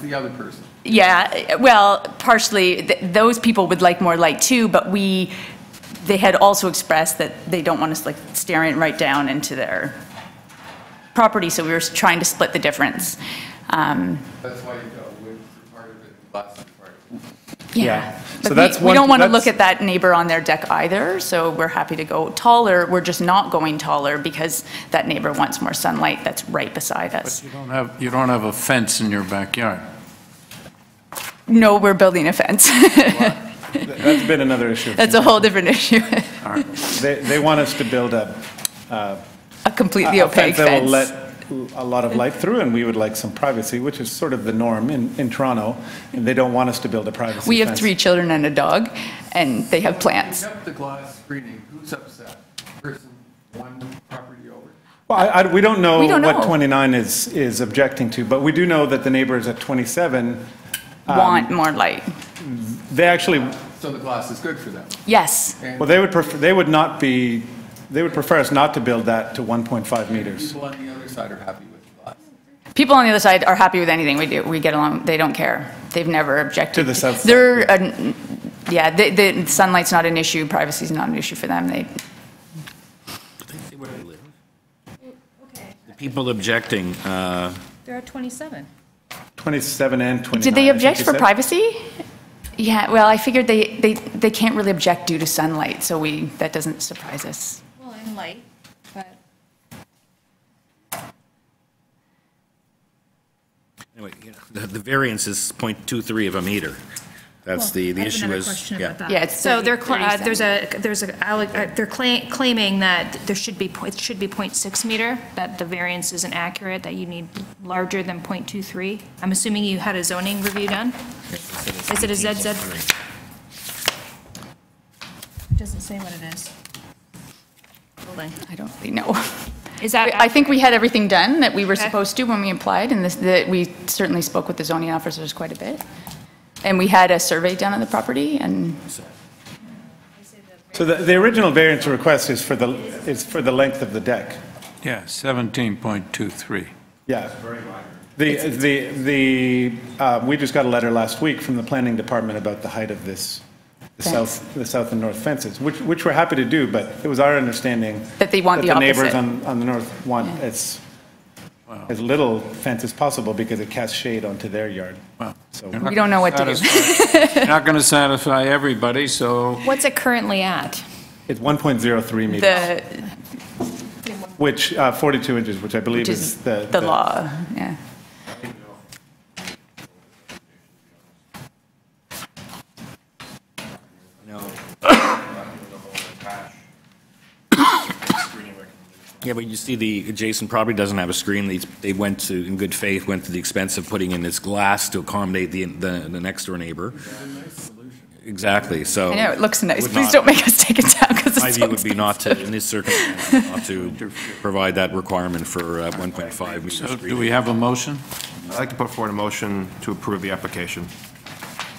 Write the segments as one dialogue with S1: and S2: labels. S1: the other person.
S2: Yeah, well, partially, th- those people would like more light too, but we, they had also expressed that they don't want us like staring right down into their property, so we were trying to split the difference. Um,
S1: That's why you go with part of it, lots of part.
S2: Yeah.
S3: So
S2: But
S3: that's
S2: we- we
S3: one-
S2: don't want to
S3: that's-
S2: look at that neighbor on their deck either, so we're happy to go taller. We're just not going taller because that neighbor wants more sunlight that's right beside us.
S4: You don't have, you don't have a fence in your backyard.
S2: No, we're building a fence.
S3: That's been another issue.
S2: That's a whole different issue,
S3: They, they want us to build a
S2: a completely
S3: a
S2: opaque
S3: That will
S2: fence.
S3: let a lot of light through, and we would like some privacy, which is sort of the norm in, in Toronto, and they don't want us to build a privacy
S2: We have
S3: fence.
S2: three children and a dog, and they have plants.
S1: Except the glass screening, who's upset? Person one property over.
S3: Well, I, I, we don't know
S2: We don't know.
S3: what 29 is, is objecting to, but we do know that the neighbors at 27, Um,
S2: Want more light.
S3: they actually,
S1: So the glass is good for them.
S2: Yes,
S1: And
S3: well, they would prefer, they would not be, they would prefer us not to build that to 1.5 meters.
S1: people on the other side are happy with the glass.
S2: people on the other side are happy with anything we do. We get along, they don't care. They've never objected.
S3: To the south side,
S2: They're, uh, yeah, the- the sunlight's not an issue, privacy's not an issue for them. They,
S5: Where do they live? The people objecting, uh,
S6: There are 27.
S3: 27 and 29.
S2: Did they
S3: I think
S2: object
S3: you
S2: for
S3: said.
S2: privacy? Yeah, well, I figured they, they, they can't really object due to sunlight, so we, that doesn't surprise us.
S6: Well, in light, but.
S5: anyway, you know, the the variance is .23 of a meter. That's the, the issue is. yeah.
S2: Yeah, it's
S6: So they're,
S2: 30,
S6: cla- uh,
S2: 37.
S6: there's a, there's a, alleg- uh, they're cla- claiming that there should be, po- it should be .6 meter, that the variance isn't accurate, that you need larger than .23. I'm assuming you had a zoning review done? Is it a ZZ? It Doesn't say what it is. Building.
S2: I don't really know.
S6: Is that?
S2: I think we had everything done that we were
S6: Okay.
S2: supposed to when we applied, and this, that we certainly spoke with the zoning officers quite a bit. And we had a survey done on the property, and
S3: So the, the original variance request is for the, is for the length of the deck.
S4: Yeah, 17.23.
S3: Yeah. The, the, the, uh, we just got a letter last week from the planning department about the height of this, the
S2: Fence.
S3: south, the south and north fences, which, which we're happy to do, but it was our understanding.
S2: That they want the
S3: That the neighbors
S2: opposite.
S3: on, on the north want as, as little fence as possible because it casts shade onto their yard. So
S2: we don't know what to do.
S4: Satisfy- You're Not going to satisfy everybody, so
S6: What's it currently at?
S3: it's 1.03 meters,
S2: The,
S3: which, uh, 42 inches, which I believe
S2: which
S3: is
S2: is
S3: the.
S2: the law, yeah.
S5: Yeah, but you see, the adjacent property doesn't have a screen. They- They went to, in good faith, went to the expense of putting in this glass to accommodate the, the the next door neighbor. Exactly, so.
S2: I know, it looks nice.
S5: would
S2: Please
S5: not-
S2: don't make us take it down, because
S5: My
S2: it's
S5: view
S2: so
S5: would be
S2: expensive.
S5: not to, in this circumstance, not to provide that requirement for uh, 1.5 meter
S4: so
S5: screen.
S4: do we have a motion?
S7: I'd like to put forward a motion to approve the application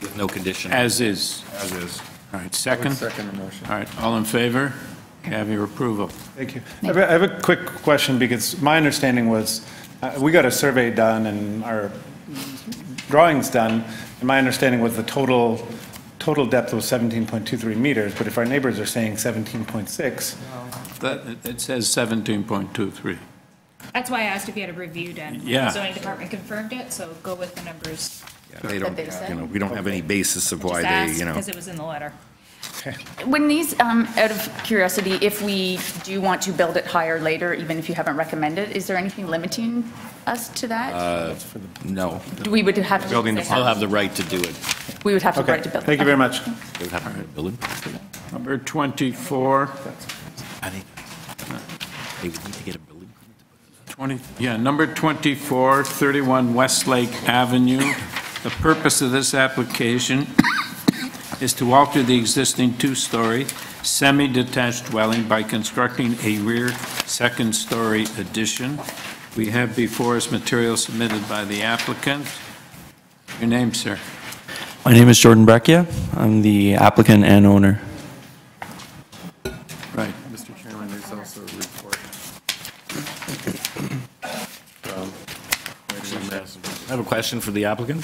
S5: With no condition.
S4: As is.
S7: as is.
S4: All right, second?
S1: Second motion.
S4: All right, all in favor? You Have your approval.
S3: Thank you. I have a- I have a quick question because my understanding was, uh, we got a survey done and our drawings done, and my understanding was the total, total depth was 17.23 meters, but if our neighbors are saying 17.6,
S4: That- it- It says 17.23.
S6: That's why I asked if you had a review done.
S4: Yeah.
S6: The zoning department confirmed it, so go with the numbers.
S5: They
S2: That
S5: don't,
S2: they said.
S5: you know, we don't have any basis of why
S6: Just
S5: they,
S6: ask,
S5: you know.
S6: because it was in the letter.
S2: When these, um, out of curiosity, if we do want to build it higher later, even if you haven't recommended, is there anything limiting us to that?
S5: No,
S2: Do We would have to.
S7: Building
S5: they'll have the right to do it.
S2: We would have to
S3: okay,
S2: write to build.
S3: thank you very much.
S5: They would have uh, to build it.
S4: Number 24,
S5: I think they would need to get a building.
S4: 20, yeah, number 24, 31 Westlake Avenue. The purpose of this application is to alter the existing two-story semi-detached dwelling by constructing a rear second-story addition. We have before us material submitted by the applicant. Your name, sir?
S8: My name is Jordan Breccia. I'm the applicant and owner.
S4: Right.
S1: Mr. Chairman, there's also a report.
S5: I have a question for the applicant.